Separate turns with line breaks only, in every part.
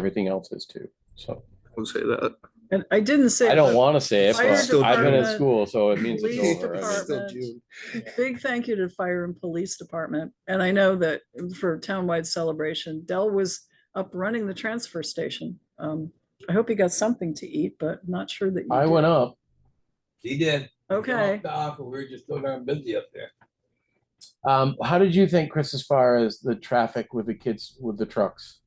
everything else is too, so.
Don't say that.
And I didn't say.
I don't
but
want to say it,
Fire
but I've been at
department,
school, so it means
police
it's over. I mean,
department. Big thank you to Fire and Police Department. And I know that for townwide celebration, Dell was up running the transfer station. Um, I hope he got something to eat, but not sure that. you
I
did.
went up,
He did.
Okay,
we were just so darn busy up there.
um, how did you think, Chris, as far as the traffic with the kids, with the trucks?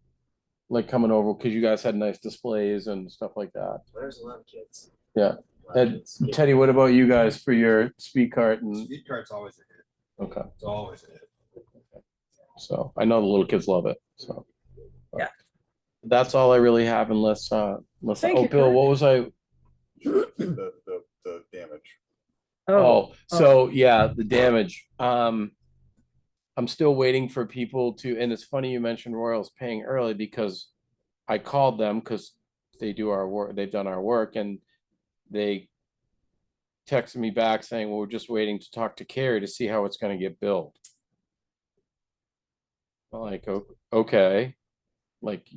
Like coming over, because you guys had nice displays and stuff like that.
There's a lot of kids.
Yeah.
A lot of
And
kids. Yeah.
Teddy, what about you guys for your speed cart and,
Speed cart's always a hit.
okay,
It's always a hit.
so I know the little kids love it, so.
Yeah.
That's all I really have unless, uh, unless,
Thank
oh,
you,
Bill,
Kurt.
what was I,
the, the, the damage.
oh,
Oh, so yeah, the damage. Um, I'm still waiting for people to, and it's funny you mentioned Royals paying early because I called them because they do our work, they've done our work and they texted me back saying, well, we're just waiting to talk to Carrie to see how it's gonna get billed. I'm Like, o- okay, like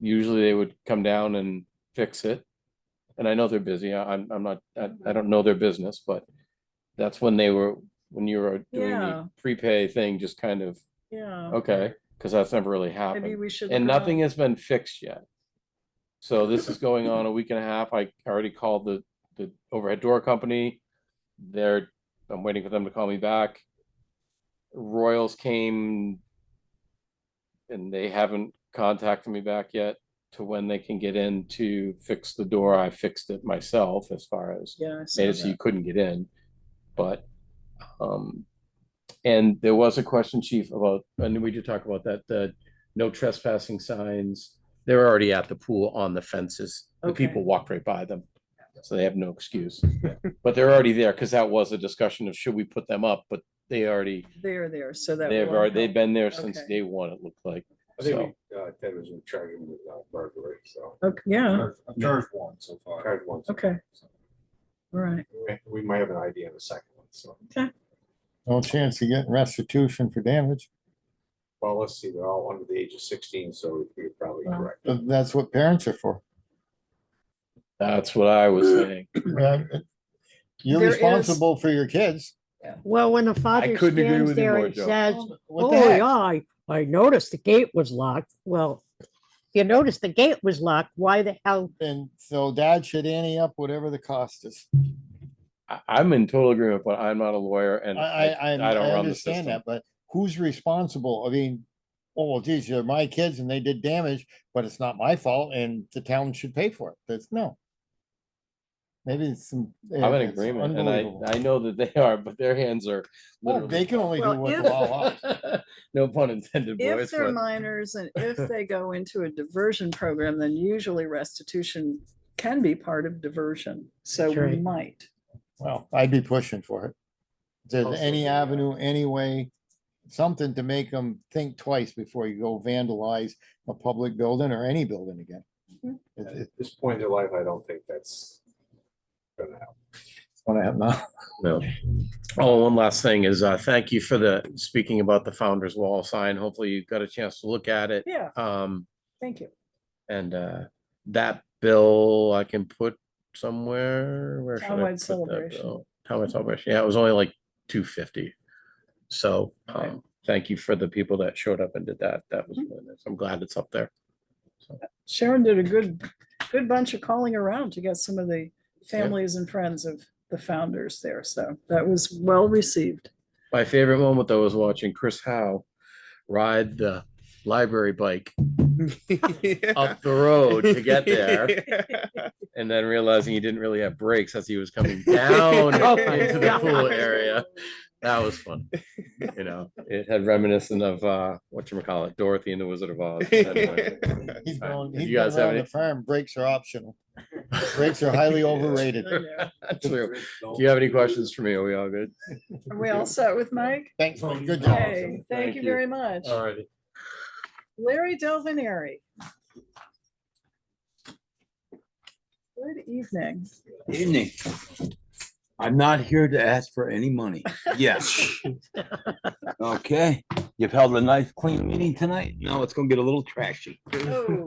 usually they would come down and fix it. And I know they're busy. I- I'm, I'm not, I, I don't know their business, but that's when they were, when you were doing
Yeah.
the prepay thing, just kind of,
yeah,
okay, because that's never really
maybe
happened.
we should.
And
look around.
nothing has been fixed yet. So this is going on a week and a half. I already called the, the overhead door company. They're, I'm waiting for them to call me back. Royals came and they haven't contacted me back yet to when they can get in to fix the door. I fixed it myself as far as
Yeah. I saw
made it so
that.
you couldn't get in, but, um, and there was a question, chief, about, and we did talk about that, the no trespassing signs. They're already at the pool on the fences. The
Okay.
people walk right by them, so they have no excuse. But they're already there, because that was a discussion of should we put them up, but they already,
They're there, so that.
they've
will
already, they've
help.
been there since
Okay.
day one, it looked like.
I
So-
think we, uh, Ted was in charge of the uh, burglary, so.
Okay, yeah,
I've charged one so far. Charged one. so
Okay.
far, so.
all right.
We- We might have an idea of a second one, so.
No chance of getting restitution for damage.
Well, let's see, they're all under the age of sixteen, so you're probably correct.
Th- That's what parents are for.
That's what I was saying.
Uh, You're
There is-
responsible for your kids.
Well, when the
I
father
couldn't agree
stands
with you
there
more,
and
Joe.
says,
What
oh,
the heck?
yeah, I, I noticed the gate was locked. Well, you noticed the gate was locked. Why the hell?
And so dad should ante up whatever the cost is.
I, I'm in total agreement, but I'm not a lawyer
I,
and
I, I
I, I don't run
I
the
understand
system.
that, but who's responsible? I mean, oh, well, geez, they're my kids and they did damage, but it's not my fault and the town should pay for it. That's no. Maybe it's some.
I'm in
it's
agreement, and I,
unbelievable.
I know that they are, but their hands are
Well,
literally.
they can only do
Well,
what
if-
the law allows.
No pun intended,
If
boys.
they're
but-
minors and if they go into a diversion program, then usually restitution can be part of diversion. So
That's
we
right.
might.
Well, I'd be pushing for it. If There's
Also,
any
the, uh,
avenue, any way, something to make them think twice before you go vandalize a public building or any building again.
Mhm.
It-
At
It's
this point in their life, I don't think that's gonna happen.
gonna happen now.
No. Oh, one last thing is, uh, thank you for the, speaking about the Founder's Wall sign. Hopefully you got a chance to look at it.
Yeah,
Um,
thank you.
and, uh, that bill I can put somewhere, where should I
Townwide
put that
celebration.
bill? Townwide celebration. Yeah, it was only like two fifty. So, um, thank you for the people that showed up and did that. That
Mm-hmm.
was, really nice. I'm glad it's up there.
Sharon did a good, good bunch of calling around to get some of the families and friends of the founders there. So that was well received.
My favorite moment though was watching Chris Howe ride the library bike up the road to get there. And then realizing he didn't really have brakes as he was coming down
Oh my
into the pool
God.
area. That was fun. You know, it had reminiscent of uh whatchamacallit, Dorothy and the Wizard of Oz.
He's going,
Did
he's
you guys have
going around the
any-
farm, brakes are optional. Brakes are highly overrated.
I know.
True. Do you have any questions for me? Are we all good?
Are we all set with Mike?
Thanks, man. good job.
Okay, thank
Thank
you
you.
very much.
righty.
Larry Delvenary. Good evening.
Evening. I'm not here to ask for any money. Yes. Okay, you've held a nice clean meeting tonight. Now it's gonna get a little trashy.
Oh,